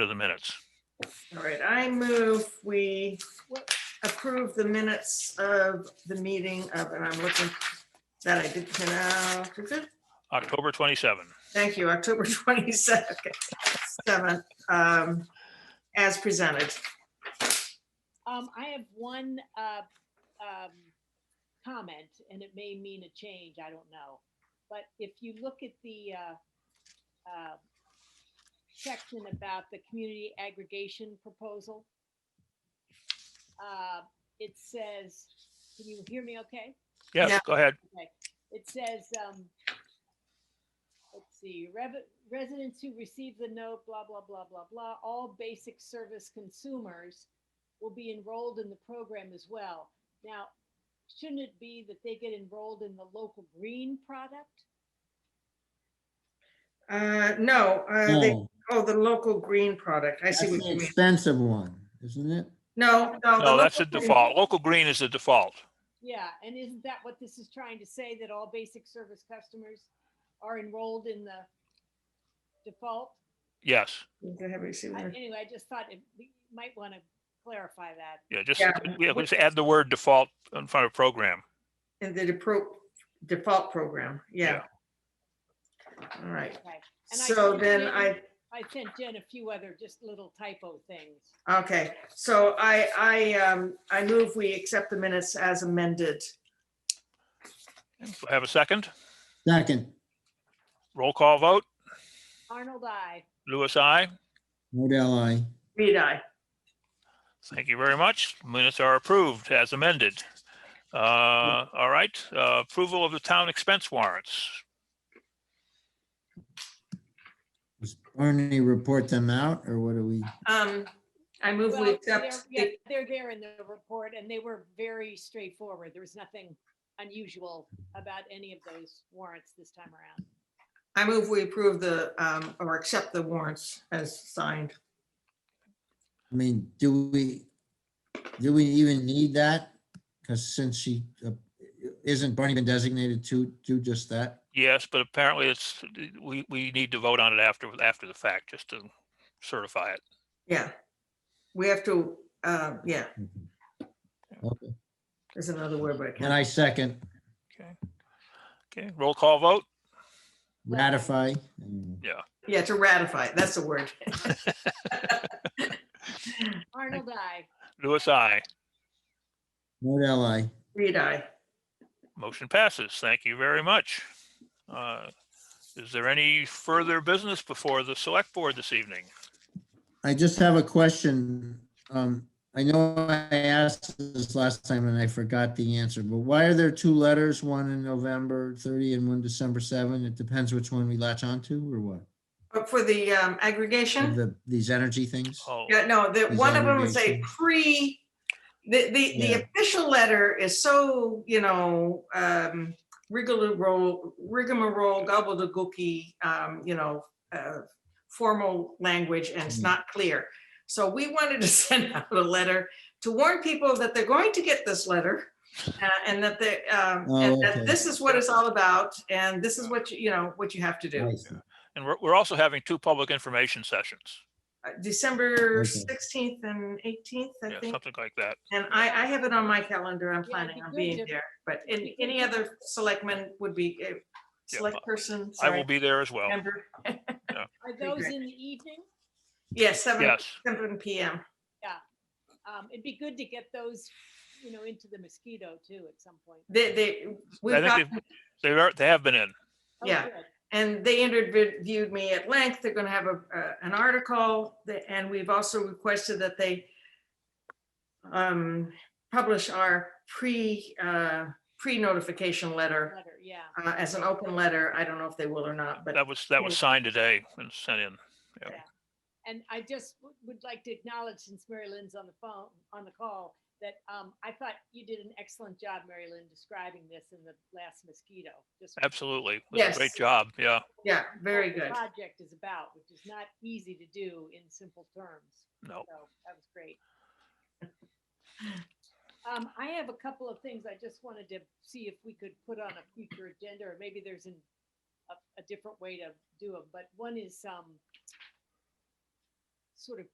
to the minutes. All right, I move we approve the minutes of the meeting of, and I'm looking, that I did, can, uh, is it? October 27. thank you, October twenty-seventh, um, as presented. Um, I have one, uh, um, comment, and it may mean a change, I don't know. But if you look at the, uh, uh, section about the community aggregation proposal, uh, it says, can you hear me okay? Yeah. Yes, go ahead. It says, um, let's see, rev- residents who receive the note, blah, blah, blah, blah, blah, all basic service consumers will be enrolled in the program as well. Now, shouldn't it be that they get enrolled in the local green product? Uh, no, uh, they, No, oh, the local green product, I That's see what the you mean. expensive one, isn't it? No, no. No, that's the Oh, local green- default. Local green is the default. Yeah, and isn't that what this is trying to say, that all basic service customers are enrolled in the default? Yes, Have you seen I- that? Anyway, I just thought it- we might want to clarify that. yeah, just, Yeah. yeah, just add the word default in front of program. In the depro- default program, yeah. All right, Okay. And I so think then maybe- I I sent Jen a few other just little typo things. Okay, so I, I, um, I move we accept the minutes as amended. Have a second? Second, Roll call vote. Arnold, I. Louis, I. Modell I. Reed, I. Thank you very much. Minutes are approved as amended. Uh, All right, uh, approval of the town expense warrants. Does Barney report them out or what do we? Um, I move we Well, they're, accept, yeah, the- they're there in the report and they were very straightforward. There was nothing unusual about any of those warrants this time around. I move we approve the, um, or accept the warrants as signed. I mean, do we, do we even need that? Because since she, uh, isn't Barney been designated to do just that? Yes, but apparently it's, we, we need to vote on it after, after the fact, just to certify it. Yeah. We have to, uh, yeah, Okay. there's another word, but I And can't. I second Okay, roll call vote. ratify. Yeah, to ratify, that's the word. Arnold, I. Louis, I. Modell I. Reed, I. Motion passes. Thank you very much. Uh, Is there any further business before the select board this evening? I just have a question. Um, I know I asked this last time and I forgot the answer, but why are there two letters, one in November thirty and one December seven? It depends which one we latch onto or what? But for the, um, Of aggregation, the, these energy things? Oh, yeah, no, that, one of them is a Aggregation. pre, the, the, the Yeah. official letter is so, you know, um, rigmarole, rigmarole, gobbledygooky, um, you know, uh, formal language and it's Mhm. not clear. So we wanted to send out a letter to warn people that they're going to get this letter uh, and that they, um, and Oh, that okay. this is what it's all about and this is what, you you know, what you have to do. I see. and we're, we're also having two public information sessions, Uh, December Okay. 16th and 18th, I Yeah, think. something like that. And I, I have it on my calendar. I'm it'd planning be on good being to- there, but it'd any, be good any to- other selectman would be, uh, Yeah, select person, I will sorry, be there as well. member. Are Okay, those great. in the evening? Yes, seven, Yes, seven PM. Um, it'd be good to get those, you know, into the mosquito too at some point. They, they, we've I got, think they've- they are, they have been in. Oh, Yeah. good. and they interviewed me at length. They're gonna have a, uh, an article. that- And we've also requested that they um, publish our pre, uh, pre-notification letter Letter, yeah. uh, as an open letter. I don't know if they will or not, but That was, that was signed today and sent in. And I just w- would like to acknowledge, since Mary Lynn's on the phone, on the call, that um, I thought you did an excellent job, Mary Lynn, describing this in the last mosquito. Just what Absolutely. It was a Great Yes. job, yeah. yeah, very the good. Project is about, which is not easy to do in simple terms. No, So that was great. Um, I have a couple of things I just wanted to see if we could put on a future agenda, or maybe there's an, a, a different way to do them, but one is, um, sort of